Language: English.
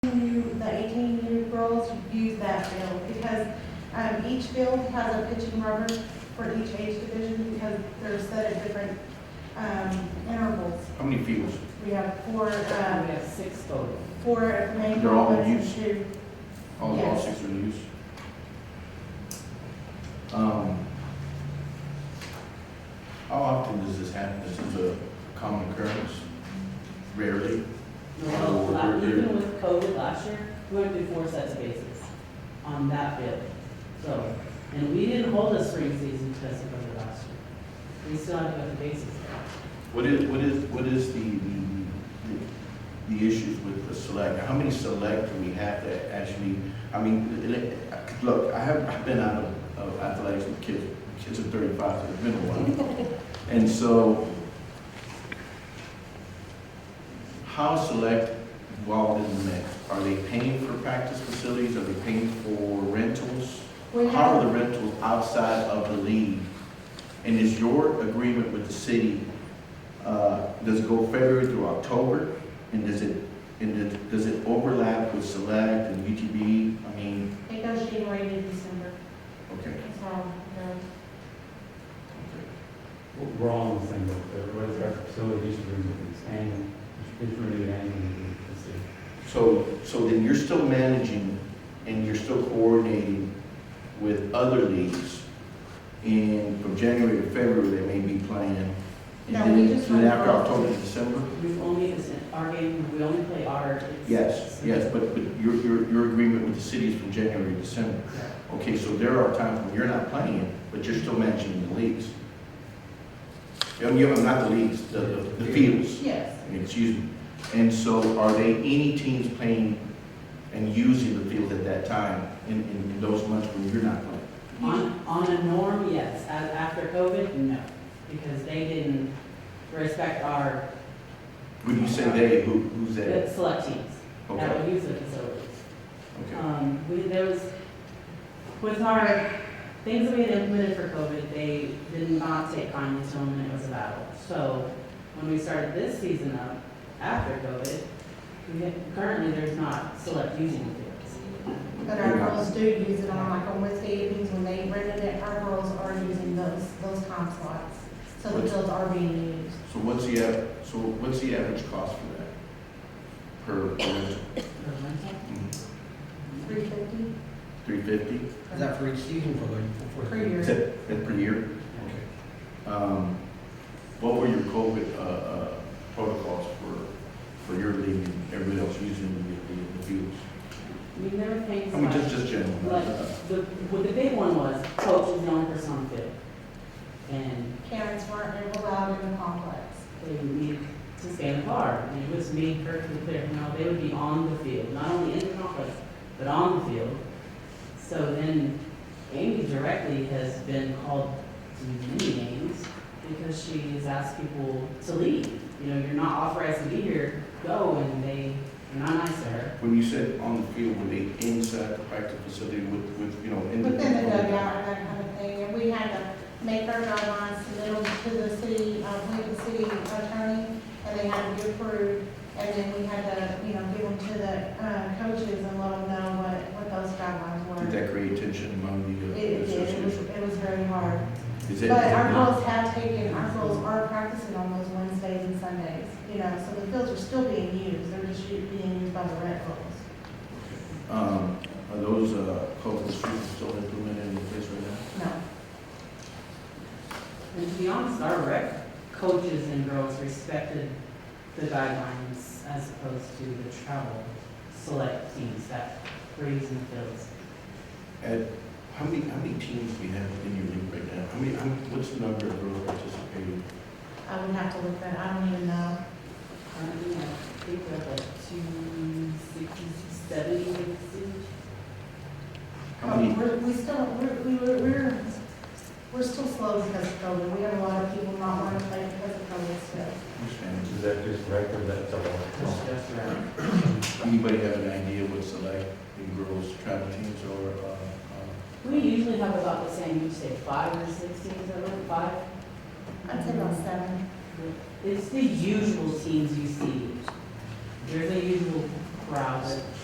um, each field has a pitching rubber for each age division because they're set at different, um, intervals. How many fields? We have four, And uh, we have six total. four at the main. They're all one and used. two. All, all Yes. six are used? Um, how often does this happen? This is a common occurrence? Rarely? Well, uh, even with COVID last year, we went through four sets of bases on that field. So, and we didn't hold a spring season because of COVID last year. We still had to go to bases. What is, what is, what is the, the, the issues with the select? How many select do we have that actually, I mean, li- look, I have, I've been out of- of athletics with kids, kids are thirty-five, so it's been a while. And so, how select involved in the mix? Are they paying for practice facilities? Are they paying for rentals? We How are have, the rentals outside of the league? And is your agreement with the city, uh, does it go February through October? And does it, and does- does it overlap with Select and UTB? I mean, it goes January to December, okay, that's all, no. okay. We're all on the same boat, everybody's got facilities, to renew these annual, it's renewed annually, let's see. So, so then you're still managing and you're still coordinating with other leagugues? And from January to February, they may be playing? And No, then- we just Then run after our- October to December? We've only, it's our game, we only play our. it's- Yes, yes, but, but your, your, your agreement with the city is from January to December. Okay, so there are times when you're not playing, but you're still managing the leagues. I mean, not the leagues, the, the the fields, Yes, excuse me. And so are they, any teams playing and using the field at that time in, in in those months when you're not playing? On, on a norm, yes. As, after COVID, no, because they didn't respect our When you say they, who, who's good that? select teams that Okay, would use the facilities. okay. Um, we, there was, with our, things that we had implemented for COVID, they did not take kindly to them, and it was a battle. So when we started this season up, after COVID, we had, currently, there's not select using the fields. but our girls do use it on, like, on Wednesday evenings when they rented it, our girls are using those, those time slots. So the fields are being used. So what's the, av- so what's the average cost for that? Per, per, mm-hmm, Three fifty three fifty? Is that for each season for the? for- per year. Is that, that per year? Okay. Um, what were your COVID, uh, uh, protocols for, for your league and everybody else using the, the- the fields? We never paid I mean, just, select. just general. Like, the, what the big one was, coach is the only person on the field. And Parents weren't allowed in the complex. they would need to stay in the car. And it was made perfectly clear, no, they would be on the field, not only in the conference, but on the field. So then Amy directly has been called to many names because she has asked people to leave. You know, you're not authorized to be here, go, and they, you're not nice to her. When you said on the field, were they inside the practice facility with, with, you know, in the? Within the dugout and that kind of thing, and we had to make our guidelines, submit them to the city, uh, Lincoln City Attorney, and they had to be approved, and then we had to, you know, give them to the, uh, coaches and let them know what, what those guidelines Did were. that create tension among It, the, uh, it did, it was, association? it was very hard. Is Um, But our that, girls have taken, our girls are practicing on those Wednesdays and Sundays, you know, so the fields are still being used, they're just u- being used by the red girls. um, are those, uh, COVID restrictions still implemented in place right now? No, And to be honest, our rec coaches and girls respected the guidelines as opposed to the travel select teams that were using the fields. Ed, how many, how many teams we have in your league right now? How many, how many- what's the number of girls participating? I would have to look that, I don't even know. Currently, I think we're like two sixty, seventy, sixty. How Oh, many, We're, we still, we're, we were- we're, we're still slow because of COVID. We have a lot of people not wanting to play because of COVID still. which fans? Is that just record, that's all? Just around. Anybody have an idea what select the girls travel teams or, uh, uh, We usually have about the same, you say five or six teams, I don't know, five. I'd say about seven. It's the usual teams you see. There's a usual crowd that